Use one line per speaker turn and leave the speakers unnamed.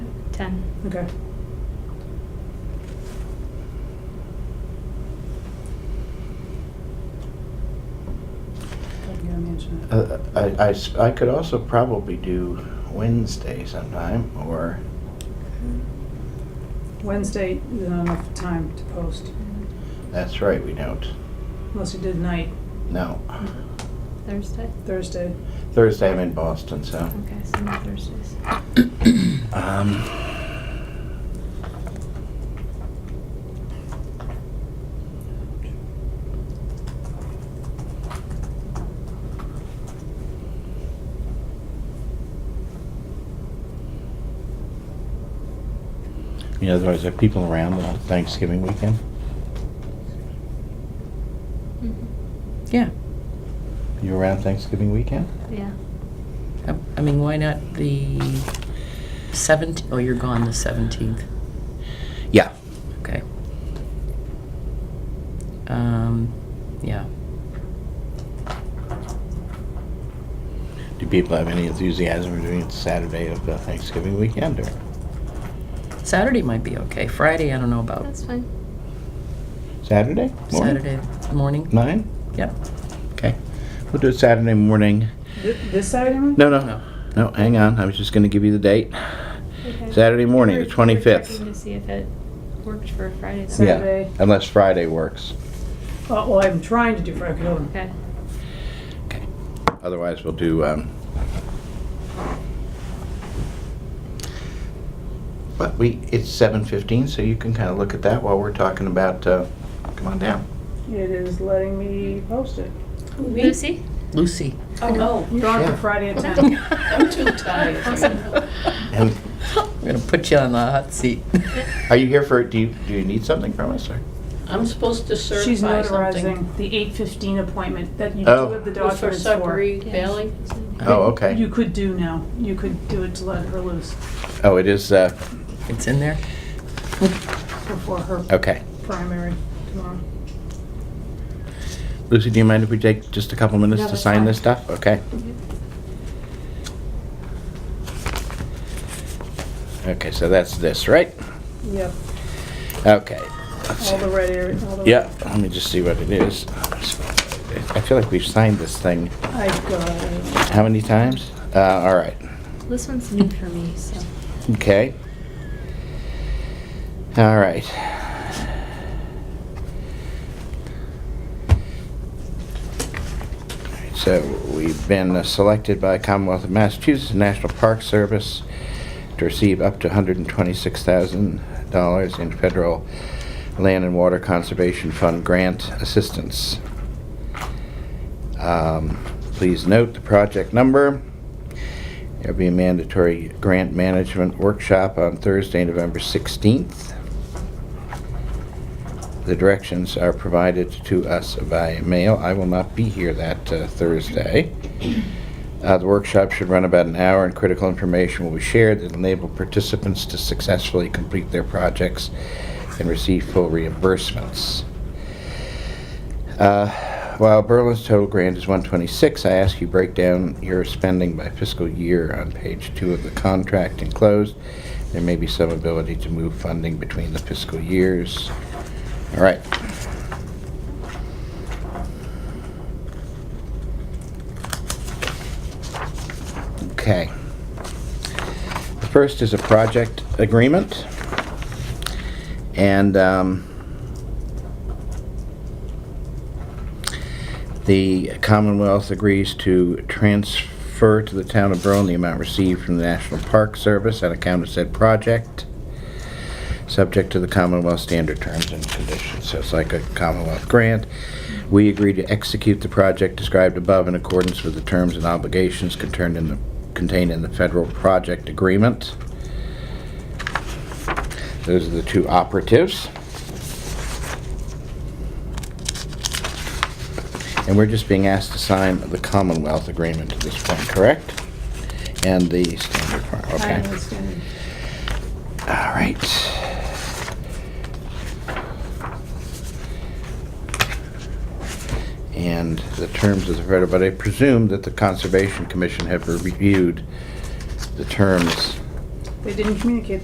10.
Okay. Yeah, mansion.
Uh, I, I s- I could also probably do Wednesday sometime, or,
Wednesday, there's not enough time to post,
that's right, we don't.
unless you did night,
No.
Thursday?
Thursday.
Thursday I'm in Boston, so.
Okay, so no Thursdays.
Um, you know, otherwise, there are people around the Thanksgiving weekend?
Mm-hmm.
Yeah.
You around Thanksgiving weekend?
Yeah.
I- I mean, why not the 17th? Oh, you're gone the 17th.
Yeah.
Okay. Um, yeah.
Do people have any enthusiasm for doing it Saturday of the Thanksgiving weekend, or?
Saturday might be okay. Friday, I don't know about.
That's fine.
Saturday? morning?
Saturday morning?
Nine?
Yep.
Okay. We'll do it Saturday morning.
Th- This Saturday morning?
No, no, no, hang on. I was just going to give you the date.
Okay.
Saturday morning,
We
the
were- we were
25th.
checking to see if it worked for Friday. though.
Yeah. Saturday.
Unless Friday works.
Oh, Well, I'm trying to do Friday, hold on.
Okay.
Okay. Otherwise, we'll do, um, but we, it's 7:15, so you can kind of look at that while we're talking about, uh, come on down.
It is letting me post it.
Lucy?
Lucy.
Oh, no. You're on
Yeah.
for Friday at ten.
I'm
too tired.
And
I'm gonna put you on the hot seat.
are you here for, do you, do you need something from us, or?
I'm supposed to
She's
certify something.
notarizing the eight fifteen appointment that you do
Oh.
have the
It was For
documents for.
Sudbury Valley.
Oh, okay.
You could do now, you could do it to let her loose
Oh, it is, uh,
It's in there?
before her
okay.
primary tomorrow.
Lucy, do you mind if we take just a couple minutes
No,
to
that's
sign
fine.
this stuff? Okay. Okay, so that's this, right?
Yep,
Okay. Let's
all the
see.
red area, all the.
Yeah, let me just see what it is. I feel like we've signed this thing
I got it.
how many times? Uh, all right.
This one's new for me, so.
Okay. All right. So we've been uh, selected by Commonwealth of Massachusetts National Park Service to receive up to $126,000 in federal land and water conservation fund grant assistance. Um, Please note the project number. There'll be a mandatory grant management workshop on Thursday, November 16th. The directions are provided to us by mail. I will not be here that uh, Thursday. Uh, The workshop should run about an hour, and critical information will be shared that enable participants to successfully complete their projects and receive full reimbursements. Uh, While Berlin's total grant is 126, I ask you break down your spending by fiscal year on page two of the contract enclosed. There may be some ability to move funding between the fiscal years. All right. Okay. The first is a project agreement. And, um, The Commonwealth agrees to transfer to the town of Berlin the amount received from the National Park Service on account of said project, subject to the Commonwealth standard terms and conditions. So it's like a Commonwealth grant. We agree to execute the project described above in accordance with the terms and obligations contained in the, contained in the federal project agreement. Those are the two operatives. And we're just being asked to sign the Commonwealth Agreement at this point, correct? And the standard part,
I
okay.
understand.
All right. And the terms of the federal, but I presume that the Conservation Commission have reviewed the terms
They didn't communicate